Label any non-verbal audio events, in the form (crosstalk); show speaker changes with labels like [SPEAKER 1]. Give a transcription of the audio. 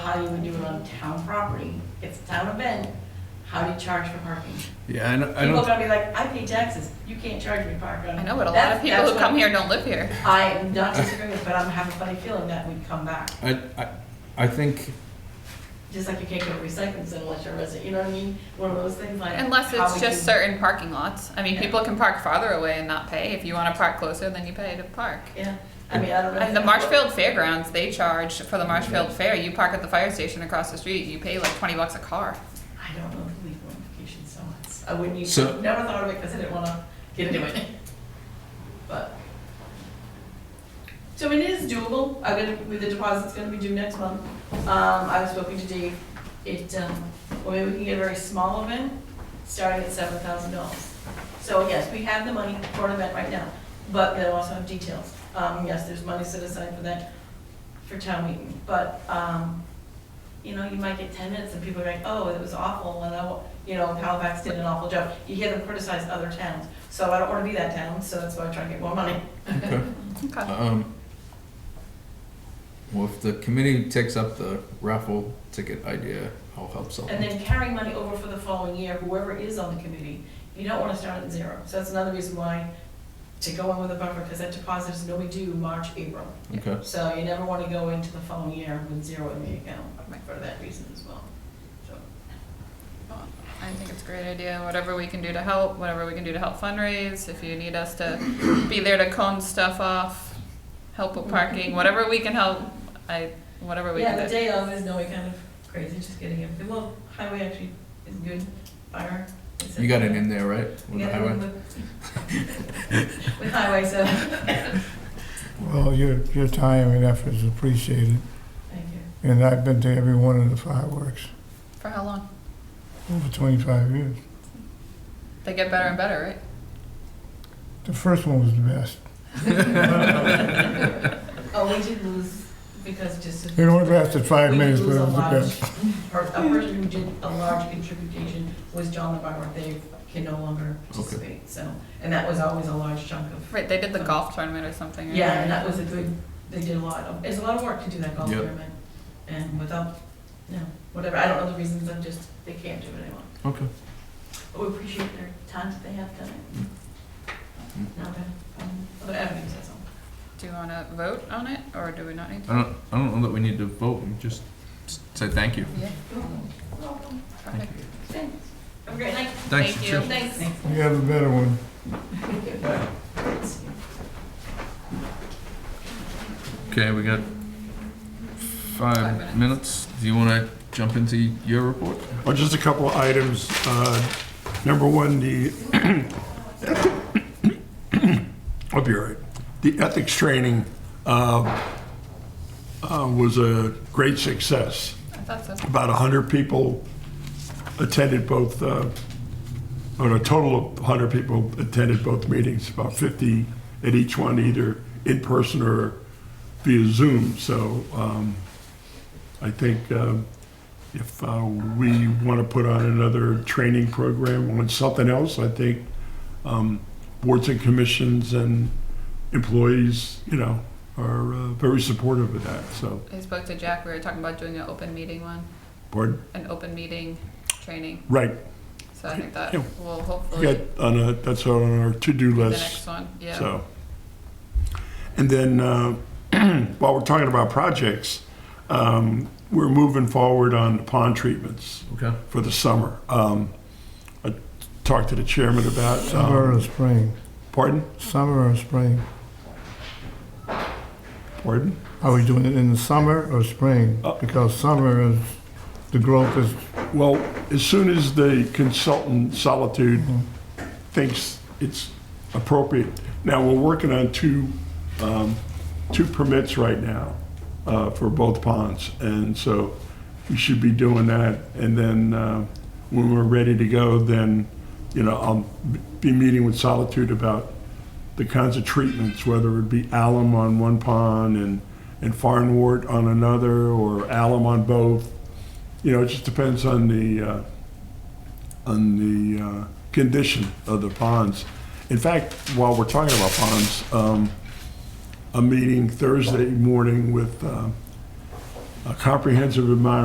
[SPEAKER 1] how you would do it on town property. It's a town event, how do you charge for parking?
[SPEAKER 2] Yeah, I don't,
[SPEAKER 1] People
[SPEAKER 2] I
[SPEAKER 1] are
[SPEAKER 2] don't,
[SPEAKER 1] gonna be like, I pay taxes, you can't charge me parking.
[SPEAKER 3] I know, but a lot
[SPEAKER 1] That's-
[SPEAKER 3] of people
[SPEAKER 1] that's
[SPEAKER 3] who
[SPEAKER 1] what-
[SPEAKER 3] come here don't live here.
[SPEAKER 1] I am not disagreeing, but I'm having a funny feeling that we'd come back,
[SPEAKER 2] I, I, I think,
[SPEAKER 1] just like you can't get recycling center unless you're a resident, you know what I mean? One of those things like.
[SPEAKER 3] Unless
[SPEAKER 1] how we
[SPEAKER 3] it's just
[SPEAKER 1] do-
[SPEAKER 3] certain parking lots. I mean, people can park farther away and not pay. If you want to park closer, then you pay to park.
[SPEAKER 1] Yeah, I mean, I don't know.
[SPEAKER 3] And the Marshfield Fairgrounds, they charge for the Marshfield Fair. You park at the fire station across the street, you pay like twenty bucks a car.
[SPEAKER 1] I don't know the legal implications so much. I wouldn't use,
[SPEAKER 2] So-
[SPEAKER 1] never thought of it because I didn't want to get into it. But. So it is doable. I'm gonna, with the deposit's gonna be due next month. Um, I was spoken to Dave. It, um, well, maybe we can get a very small event, starting at seven thousand dollars. So yes, we have the money for an event right now, but they'll also have details. Um, yes, there's money set aside for that, for town meeting, but, um, you know, you might get ten minutes and people are like, oh, it was awful, and oh, you know, Halifax did an awful job. You hear them criticize other towns, so I don't wanna be that town, so that's why I try to get more money.
[SPEAKER 2] okay,
[SPEAKER 3] Okay.
[SPEAKER 2] um, well, if the committee takes up the raffle ticket idea, I'll help
[SPEAKER 1] And
[SPEAKER 2] someone.
[SPEAKER 1] then carry money over for the following year, whoever is on the committee, you don't wanna start at zero. So that's another reason why to go in with a buffer, because that deposit is nobody due March, April.
[SPEAKER 2] Okay,
[SPEAKER 1] So you never wanna go into the following year with zero in the account, for that reason as well, so.
[SPEAKER 3] I think it's a great idea. Whatever we can do to help, whatever we can do to help fundraise, if you need us to be there to cone stuff off, help with parking, whatever we can help, I, whatever we
[SPEAKER 1] Yeah, the
[SPEAKER 3] can do.
[SPEAKER 1] day of is no kind of crazy, just getting everything. Well, highway actually is good, fire. is
[SPEAKER 2] you got it in there, right?
[SPEAKER 1] We
[SPEAKER 2] With the
[SPEAKER 1] got it
[SPEAKER 2] highway?
[SPEAKER 1] with- With highway, so,
[SPEAKER 4] Well, your, your time and effort is appreciated,
[SPEAKER 1] thank you.
[SPEAKER 4] and I've been to every one of the fireworks
[SPEAKER 3] For how long?
[SPEAKER 4] over 25 years.
[SPEAKER 3] They get better and better, right?
[SPEAKER 4] The first one was the best.
[SPEAKER 2] (laughs)
[SPEAKER 1] Oh, we did lose because just.
[SPEAKER 4] It only lasted five
[SPEAKER 1] We did
[SPEAKER 4] minutes, but
[SPEAKER 1] lose
[SPEAKER 4] it
[SPEAKER 1] a
[SPEAKER 4] was the
[SPEAKER 1] large-
[SPEAKER 4] best.
[SPEAKER 1] or A person who did a large contribution was John the barber. They can no longer participate, so, and that was always a large chunk of.
[SPEAKER 3] Right, they did the golf tournament or something. right?
[SPEAKER 1] Yeah, and that was a good, they did a lot of, it's a lot of work to do that golf
[SPEAKER 2] Yep.
[SPEAKER 1] tournament. And without, no, whatever, I don't know the reasons, I'm just, they can't do it anymore.
[SPEAKER 2] Okay,
[SPEAKER 1] But we appreciate their time that they have done it.
[SPEAKER 2] Mm.
[SPEAKER 1] Now, that, um, other avenues, that's all.
[SPEAKER 3] Do you wanna vote on it, or do we not need to?
[SPEAKER 2] I don't, I don't know that we need to vote, we just s- say thank you.
[SPEAKER 3] Yeah,
[SPEAKER 1] Welcome.
[SPEAKER 5] Uh-huh.
[SPEAKER 3] perfect.
[SPEAKER 1] Thanks. Have a great night.
[SPEAKER 2] Thanks,
[SPEAKER 3] Thank
[SPEAKER 2] sure.
[SPEAKER 3] you.
[SPEAKER 1] Thanks.
[SPEAKER 4] You have a better one.
[SPEAKER 2] Okay, we got
[SPEAKER 3] Five
[SPEAKER 2] five
[SPEAKER 3] minutes.
[SPEAKER 2] minutes. Do you wanna jump into your report?
[SPEAKER 5] Well, just a couple of items. Uh, Number one, the, (coughs) I'll be all right. The ethics training uh, uh, was a great success.
[SPEAKER 3] I thought so.
[SPEAKER 5] About 100 people attended both, uh, or a total of 100 people attended both meetings, about 50 at each one, either in person or via Zoom. So um, I think um, if uh, we want to put on another training program on something else, I think um, boards and commissions and employees, you know, are uh, very supportive of that, so,
[SPEAKER 3] I spoke to Jack, we were talking about doing an open meeting one,
[SPEAKER 5] pardon?
[SPEAKER 3] an open meeting training,
[SPEAKER 5] Right,
[SPEAKER 3] so I think that
[SPEAKER 5] Yeah.
[SPEAKER 3] will
[SPEAKER 5] we
[SPEAKER 3] hopefully
[SPEAKER 5] got
[SPEAKER 3] be
[SPEAKER 5] on a, that's on our to-do
[SPEAKER 3] the
[SPEAKER 5] list.
[SPEAKER 3] next one, yeah.
[SPEAKER 5] So, and then uh, (clears throat) while we're talking about projects, um, we're moving forward on the pond treatments
[SPEAKER 2] Okay.
[SPEAKER 5] for the summer. Um, I talked to the chairman about. um,
[SPEAKER 4] Summer or spring?
[SPEAKER 5] Pardon?
[SPEAKER 4] Summer or spring?
[SPEAKER 5] Pardon?
[SPEAKER 4] Are we doing it in the summer or spring?
[SPEAKER 5] Uh.
[SPEAKER 4] Because summer is, the growth is,
[SPEAKER 5] Well, as soon as the consultant Solitude thinks it's appropriate. Now, we're working on two, um, two permits right now uh, for both ponds, and so we should be doing that. And then uh, when we're ready to go, then, you know, I'll be meeting with Solitude about the kinds of treatments, whether it be alum on one pond and, and farnwort on another, or alum on both. You know, it just depends on the, uh, on the uh, condition of the ponds. In fact, while we're talking about ponds, um, I'm meeting Thursday morning with um, a uh, comprehensive environmental